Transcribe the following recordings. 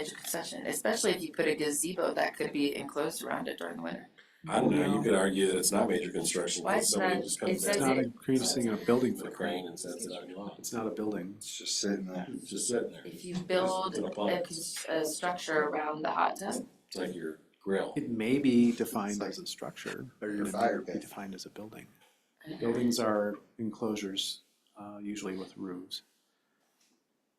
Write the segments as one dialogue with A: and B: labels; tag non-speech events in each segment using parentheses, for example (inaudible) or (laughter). A: edge of concession, especially if you put a gazebo that could be enclosed around it during the winter.
B: I don't know, you could argue that it's not major construction,
A: Why
B: because
A: is
B: somebody
A: that-
B: just
A: it
B: comes
A: says
C: It's
B: down
C: not
A: it-
C: increasing a building
B: with a
C: footprint.
B: crane and sets it on your lawn.
C: It's not a building.
D: It's just sitting there.
B: It's just sitting there,
A: If you build
B: It's an
A: a,
B: appliance.
A: cons- a structure around the hot tub,
B: it's like your grill.
C: It may be defined as a structure.
D: Or
C: but
D: your
C: it
D: fire
C: wouldn't Be
D: pit.
C: defined as a building. Buildings are enclosures, uh, usually with roofs.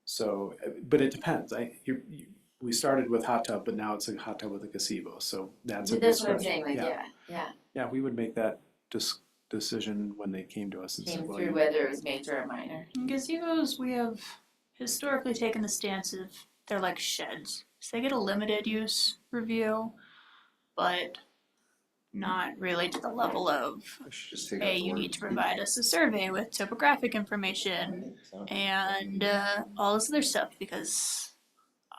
C: So, uh, but it depends. I, you, you, we started with hot tub, but now it's a hot tub with a gazebo, so that's a
A: that's what I'm saying,
C: discretion.
A: like, yeah, yeah,
C: Yeah, we would make that dis- decision when they came to us and said,
A: came
C: well,
A: through
C: you-
A: whether it was major or minor.
E: Gazebos, we have historically taken the stance of they're like sheds. So they get a limited use review, but not really to the level of,
D: Just take
E: hey,
D: out the
E: you
D: word.
E: need to provide us a survey with topographic information and uh, all this other stuff because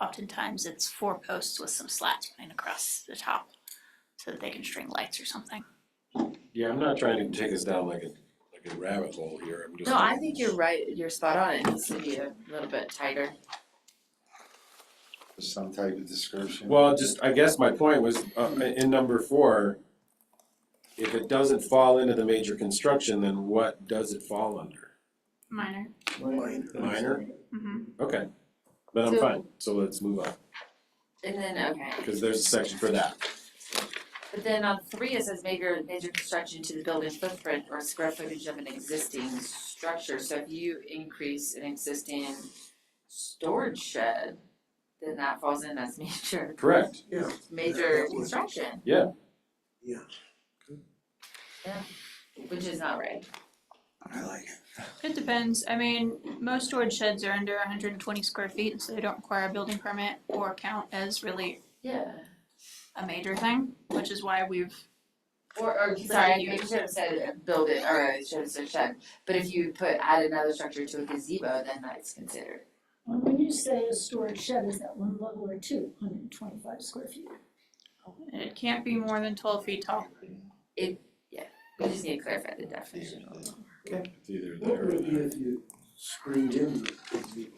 E: oftentimes it's four posts with some slats running across the top so that they can string lights or something.
B: Yeah, I'm not trying to take us down like a, like a rabbit hole here, I'm just.
A: No, I think you're right, you're spot on, it needs to be a little bit tighter.
D: Some type of description.
B: Well, just, I guess my point was, uh, in number four, if it doesn't fall into the major construction, then what does it fall under?
E: Minor.
B: Minor?
E: hmm
B: Okay, then
A: Mm-hmm.
B: I'm
A: So-
B: fine, so let's move on,
A: And then, okay,
B: because there's a section for that.
A: But then on three, it says major, major construction to the building footprint or square footage of an existing structure, so if you increase an existing storage shed, then that falls in as (laughs) major,
B: Correct,
A: major construction.
B: Yeah.
F: Yeah.
A: Yeah, which is not right.
D: I like it.
E: It depends. I mean, most storage sheds are under 120 square feet, so they don't require a building permit or count as really
A: Yeah.
E: a major thing, which is why we've
A: Or, or, sorry, I should have said a building, or I should have said shed, but if you put, add another structure to a gazebo, then that's considered.
G: Well, When you say a storage shed, is that one level or two, hundred and twenty-five square feet?
E: it can't be more than 12 feet tall.
A: We just need to clarify the definition.
B: it's either
F: What
B: there
F: would
B: or
F: it be
B: there.
F: if you screened in the gazebo?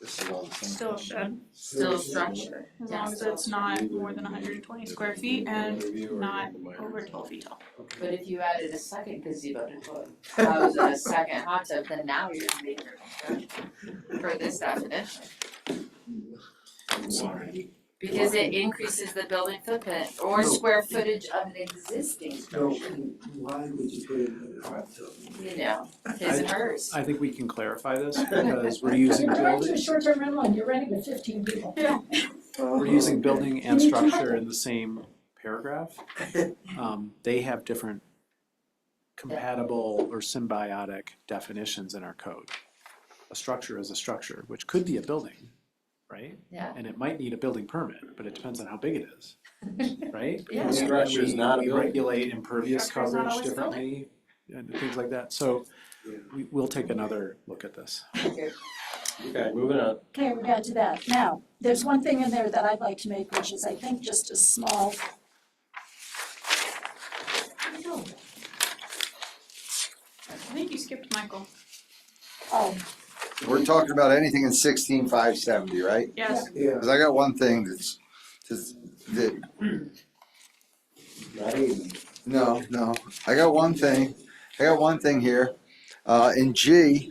D: This is all the same.
E: Still a shed,
A: Still structure.
E: as
A: Yeah,
E: long as
A: so-
E: it's not more than 120 square feet and not over 12 feet tall.
A: But if you added a second gazebo to (laughs) put, that was a second hot tub, then now you're in major construction for this definition.
B: I'm sorry.
A: Because it increases the building footprint or square footage of an existing,
F: No, why would you put it in a hot tub?
A: you know, his and hers.
C: I think we can clarify this because we're using
G: (laughs) You're going to a
C: building,
G: short-term rental and you're renting to fifteen people.
E: Yeah.
C: we're using building and structure in the same paragraph.
E: (laughs)
C: Um, they have different compatible or symbiotic definitions in our code. A structure is a structure, which could be a building, right?
A: Yeah.
C: And it might need a building permit, but it depends on how big it
E: (laughs)
C: is, right?
A: Yeah.
B: Structure is
C: We-
B: not a
C: We
B: building.
C: regulate impervious
E: Structure is not
C: coverage
E: always a
C: differently and things like that, so
F: Yeah.
C: we, we'll take another look at this.
B: Okay, moving on.
G: Okay, we got to that. Now, there's one thing in there that I'd like to make, which is I think just a small.
E: I think you skipped Michael.
G: Oh,
D: We're talking about anything in sixteen five seventy, right?
E: Yes.
F: Yeah.
D: Cause I got one thing that's, that's, that
F: Not even.
D: No, no, I got one thing, I got one thing here, uh, in G,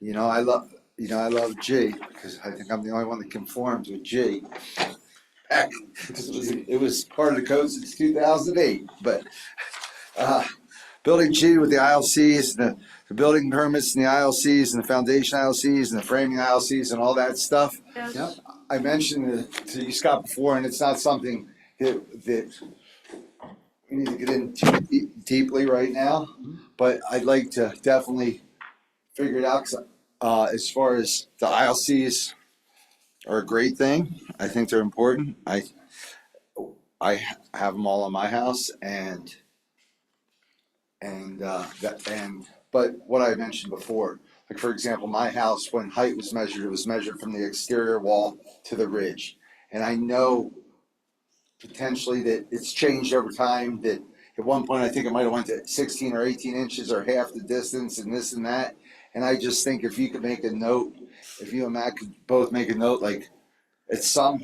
D: you know, I love, you know, I love G, because I think I'm the only one that conforms with G. Heck, It was- it was part of the code since two thousand eight, but, uh, building G with the ILCs, the, the building permits and the ILCs and the foundation ILCs and the framing ILCs and all that stuff,
C: Yep.
D: I mentioned it to you, Scott, before, and it's not something that, that we need to get into de- deeply right now, but I'd like to definitely figure it out, 'cause, uh, as far as the ILCs are a great thing, I think they're important, I, I have them all on my house, and and, uh, that, and, but what I mentioned before, like, for example, my house, when height was measured, it was measured from the exterior wall to the ridge. And I know potentially that it's changed over time, that at one point, I think it might have went to sixteen or eighteen inches or half the distance and this and that. And I just think if you could make a note, if you and Matt could both make a note, like, at some